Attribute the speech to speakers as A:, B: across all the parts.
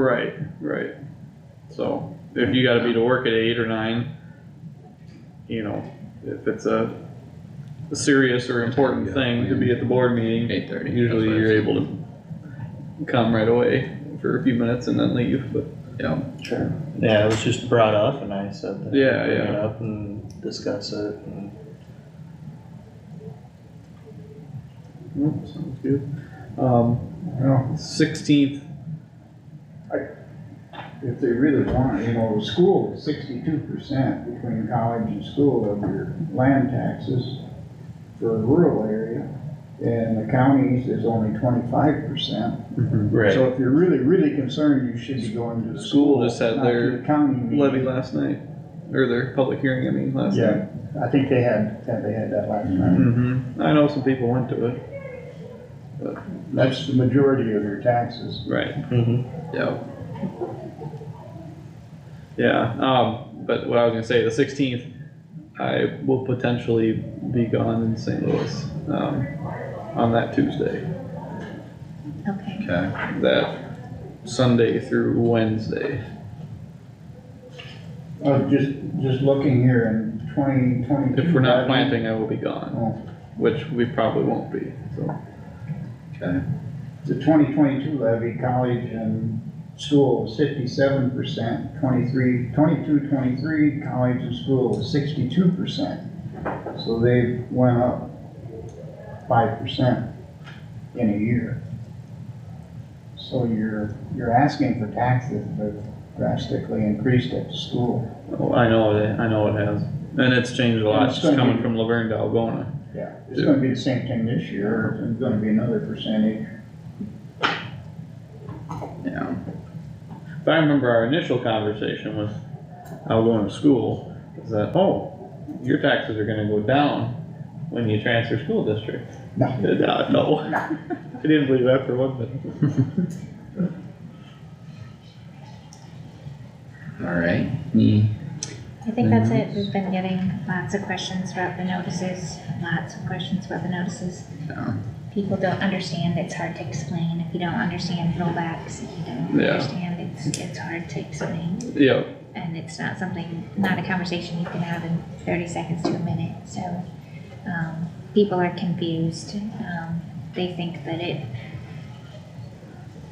A: Right, right. So if you gotta be to work at eight or nine, you know, if it's a a serious or important thing to be at the board meeting,
B: Eight thirty.
A: usually you're able to come right away for a few minutes and then leave, but, yeah.
C: Sure. Yeah, it was just brought up and I said that.
A: Yeah,
C: Bring it
A: yeah.
C: up and discuss it and
A: Nope, sounds good. Um,
D: Well,
A: sixteenth,
D: if they really want, you know, school, sixty-two percent between college and school of your land taxes for a rural area, and the counties is only twenty-five percent.
C: Right.
D: So if you're really, really concerned, you should be going to the
A: School
D: school.
A: just had
D: not to
A: their
D: the County. meeting.
A: levy last night, or their public hearing, I mean, last night.
D: Yeah, I think they had, they had that last night.
A: Mm-hmm, I know some people went to it,
D: That's the majority of your taxes.
A: right.
C: Mhm.
A: Yeah. Yeah, um, but what I was gonna say, the sixteenth, I will potentially be gone in St. Louis, um, on that Tuesday.
E: Okay,
B: Okay,
A: That Sunday through Wednesday.
D: I was Oh, just, just looking here in twenty twenty-two.
A: If we're not planting, I will be gone,
D: Oh,
A: which we probably won't be, so.
B: okay,
D: The twenty twenty-two levy, college and school was fifty-seven percent, 23, 22, 23. college and school was sixty-two percent. So they went up five percent in a year. So you're, you're asking for taxes, but drastically increased at the school.
A: Oh, I know it, I know it has, and it's changed a lot,
D: It's
A: just
D: gonna
A: coming
D: be-
A: from Laverne to Algona.
D: Yeah. It's gonna be the same thing this year, it's gonna be another percentage.
B: yeah,
A: If I remember our initial conversation with Algona School, is that, oh, your taxes are gonna go down when you transfer school district.
D: No.
A: And, uh, No, I didn't believe that for one minute.
B: alright, any
E: I think that's it, we've been getting lots of questions about the notices, lots of questions about the notices.
B: Yeah.
E: People don't understand, it's hard to explain, if you don't understand rollbacks, if you don't
A: Yeah.
E: understand, it's, it's hard to explain.
A: Yeah,
E: And it's not something, not a conversation you can have in thirty seconds to a minute, so, um, people are confused, um, they think that it,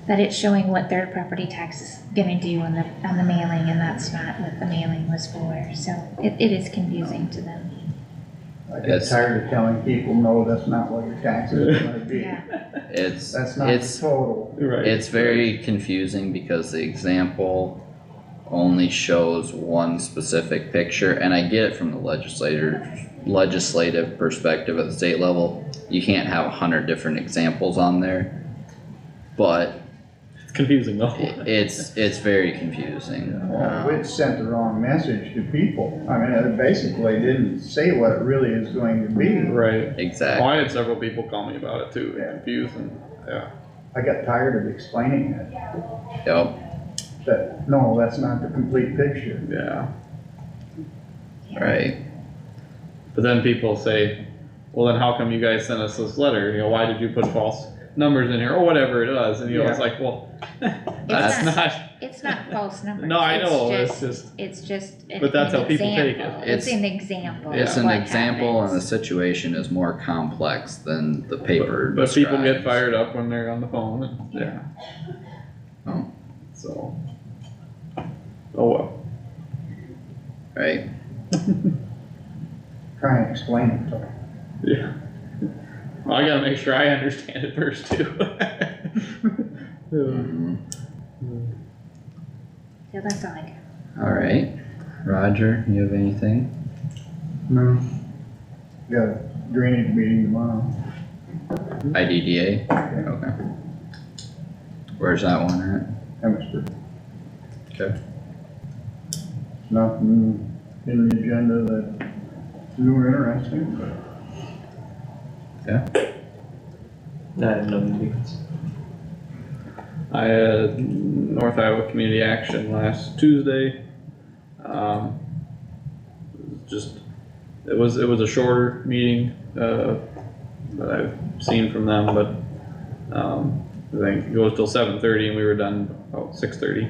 E: that it's showing what their property tax is gonna do on the, on the mailing, and that's not what the mailing was for, so it, it is confusing to them.
D: I get
B: That's-
D: tired of telling people, no, that's not what your taxes are gonna be.
E: Yeah,
B: It's,
D: That's not the
B: it's,
D: total.
A: right,
B: it's very confusing because the example only shows one specific picture, and I get it from the legislator, legislative perspective at the state level. You can't have a hundred different examples on there, but
A: it's confusing though.
B: i- it's, it's very confusing.
D: Well,
B: Um,
D: Which sent the wrong message to people. I mean, it basically didn't say what it really is going to be.
A: Right, Well,
B: Exactly,
A: I had several people call me about it too,
D: Yeah.
A: confused and, yeah,
D: I got tired of explaining it,
B: yep,
D: that, no, that's not the complete picture.
A: yeah.
B: right,
A: But then people say, well, then how come you guys sent us this letter? You know, why did you put false numbers in here or whatever it is? And you know, it's like, well, that's
E: not-
A: not,
E: it's not false numbers.
A: no, I
E: it's
A: know,
E: just-
A: it's just,
E: It's just. an-
A: But that's
E: an
A: how people take
E: example.
B: it.
E: It's
B: It's-
E: an example.
B: it's
E: of
B: an
E: what
B: example and the
E: happens.
B: situation is more complex than the paper
A: but people get
B: describes.
A: fired up when they're on the phone and, yeah.
B: Oh.
A: So. Oh, well,
B: Right,
D: Try and explain it to them.
A: yeah. Well, I gotta make sure I understand it first too. Yeah.
B: Mhm.
E: So that's all I got.
B: All right, Roger, you have anything?
D: No. Got a drainage meeting tomorrow.
A: Mm-hmm.
B: IDDA? Okay. Where's that one at?
D: Emmitsburg.
B: Okay.
D: Nothing in the agenda that you were interested in, but
C: Not in the meetings.
A: I had North Iowa Community Action last Tuesday. Um, Just, it was, it was a shorter meeting, uh, that I've seen from them, but, um, I think it goes till seven thirty and we were done oh, six thirty.